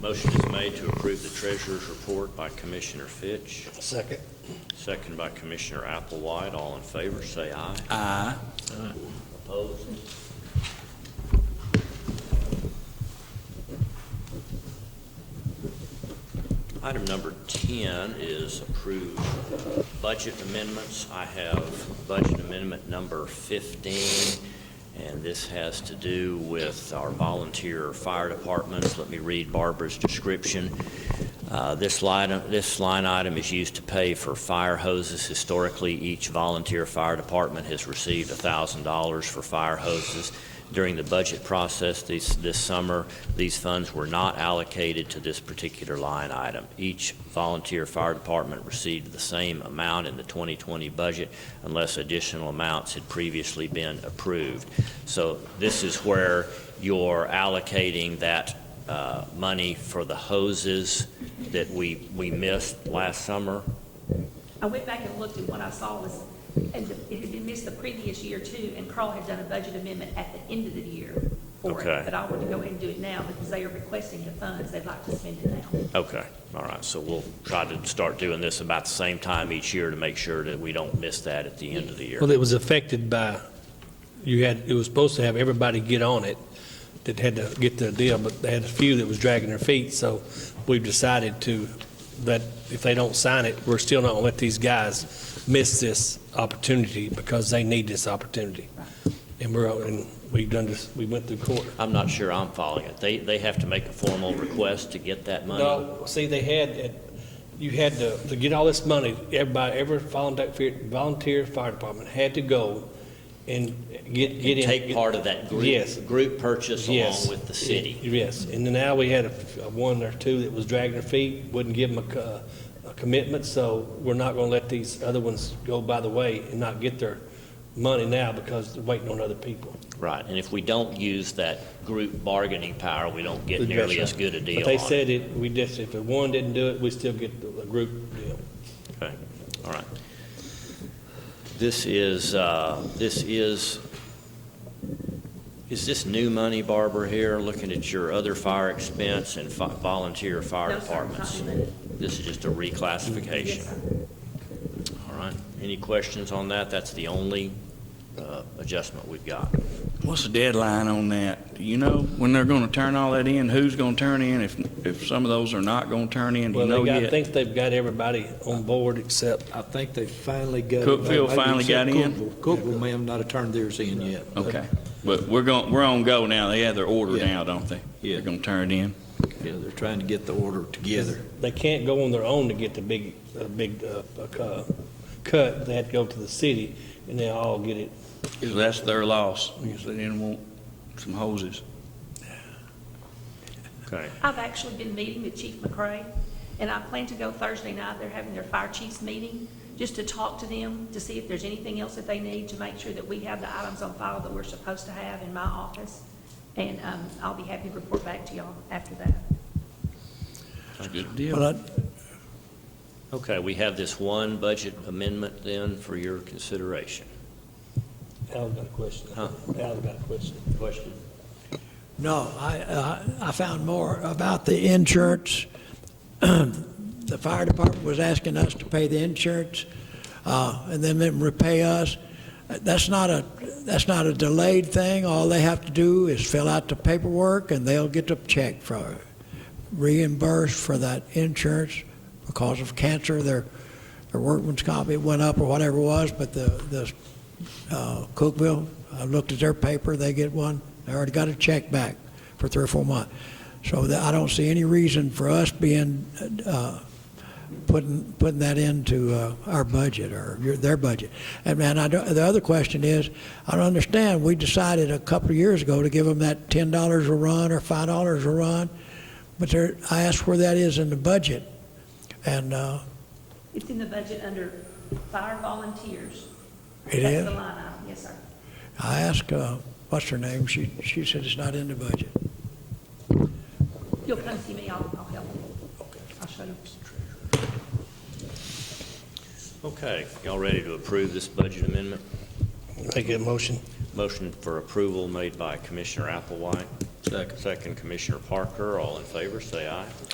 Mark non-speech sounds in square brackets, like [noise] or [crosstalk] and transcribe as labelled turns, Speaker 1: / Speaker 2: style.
Speaker 1: Motion is made to approve the treasurer's report by Commissioner Fitch,
Speaker 2: Second.
Speaker 1: second by Commissioner Applewhite. All in favor, say aye.
Speaker 3: Aye.
Speaker 1: Opposed? Item number 10 is approved budget amendments. I have budget amendment number 15, and this has to do with our volunteer fire departments. Let me read Barbara's description. Uh, This line, this line item is used to pay for fire hoses. Historically, each volunteer fire department has received $1,000 for fire hoses. During the budget process this, this summer, these funds were not allocated to this particular line item. Each volunteer fire department received the same amount in the 2020 budget unless additional amounts had previously been approved. So this is where you're allocating that uh, money for the hoses that we, we missed last summer.
Speaker 4: I went back and looked, and what I saw was, and the- it had been missed the previous year too, and Carl had done a budget amendment at the end of the year for
Speaker 1: Okay.
Speaker 4: it. But I want to go ahead and do it now, because they are requesting the funds, they'd like to spend it now.
Speaker 1: Okay, all right, so we'll try to start doing this about the same time each year to make sure that we don't miss that at the end of the year.
Speaker 2: Well, it was affected by, you had, it was supposed to have everybody get on it that had to get their deal, but they had a few that was dragging their feet, so we've decided to, that if they don't sign it, we're still not gonna let these guys miss this opportunity because they need this opportunity. And we're, and we've done this, we went through court.
Speaker 1: I'm not sure I'm following it. They, they have to make a formal request to get that money?
Speaker 2: No, see, they had, you had to, to get all this money, everybody, every volunteer, volunteer fire department had to go and get, get in.
Speaker 1: Take part of that
Speaker 2: Yes.
Speaker 1: group, group purchase
Speaker 2: Yes.
Speaker 1: along with the city?
Speaker 2: Yes, and then now we had a, a one or two that was dragging their feet, wouldn't give them a, co- a commitment, so we're not gonna let these other ones go by the way and not get their money now because they're waiting on other people.
Speaker 1: Right, and if we don't use that group bargaining power, we don't get nearly as good a deal
Speaker 2: But they
Speaker 1: on it.
Speaker 2: said it, we just, if the one didn't do it, we still get the, the group deal.
Speaker 1: Okay, all right. This is, uh, this is, is this new money, Barbara, here, looking at your other fire expense and fi- volunteer fire
Speaker 4: No, sir, it's not
Speaker 1: departments?
Speaker 4: in the-
Speaker 1: This is just a
Speaker 4: Yes,
Speaker 1: reclassification,
Speaker 4: sir.
Speaker 1: all right? Any questions on that? That's the only uh, adjustment we've got.
Speaker 3: What's the deadline on that? Do you know when they're going to turn all that in? Who's going to turn in? If, if some of those are not going to turn in, do you
Speaker 2: Well,
Speaker 3: know
Speaker 2: they got, I
Speaker 3: yet?
Speaker 2: think they've got everybody on board except,
Speaker 5: I think they finally got.
Speaker 3: Cookeville
Speaker 5: maybe
Speaker 3: finally got in?
Speaker 5: Cookeville- Cookeville may have not have turned theirs in yet. but-
Speaker 3: Okay, but we're going, we're on go now. They have their order
Speaker 5: Yeah.
Speaker 3: now, don't they?
Speaker 5: Yeah.
Speaker 3: They're going to turn it in.
Speaker 5: Yeah, they're trying to get the order together.
Speaker 2: they can't go on their own to get the big, uh, big, uh, uh, cut. They had to go to the city and they all get it.
Speaker 3: So that's their loss. Because they didn't want some hoses.
Speaker 1: Okay.
Speaker 4: I've actually been meeting with Chief McCray, and I plan to go Thursday night, they're having their fire chiefs meeting, just to talk to them, to see if there's anything else that they need, to make sure that we have the items on file that we're supposed to have in my office, and um, I'll be happy to report back to y'all after that.
Speaker 3: That's a good deal.
Speaker 6: Well,
Speaker 1: Okay, we have this one budget amendment then for your consideration.
Speaker 2: Al's got a question.
Speaker 1: Huh?
Speaker 2: Al's got a question.
Speaker 1: Question?
Speaker 6: no, I, uh, I I found more about the insurance. [clears throat] The fire department was asking us to pay the insurance, uh, and then them repay us. That's not a, that's not a delayed thing. All they have to do is fill out the paperwork, and they'll get the check for, reimbursed for that insurance because of cancer, their, their workman's comp, it went up or whatever it was, but the, the uh, Cookville, I looked at their paper, they get one, they already got a check back for three or four months. So that, I don't see any reason for us being, uh, putting, putting that into uh, our budget or your- their budget. And man, I don't, the other question is, I don't understand, we decided a couple of years ago to give them that ten dollars a run or five dollars a run, but there, I asked where that is in the budget, and uh,
Speaker 4: It's in the budget under fire volunteers.
Speaker 6: it
Speaker 4: That's
Speaker 6: is.
Speaker 4: the line item, yes, sir.
Speaker 6: I asked, uh, what's her name, she, she said it's not in the budget.
Speaker 4: You'll come see me, I'll, I'll help you. I'll show you.
Speaker 1: Okay, y'all ready to approve this budget amendment?
Speaker 2: Make a motion.
Speaker 1: Motion for approval made by Commissioner Applewhite,
Speaker 5: Second.
Speaker 1: Second, Commissioner Parker, all in favor, say aye.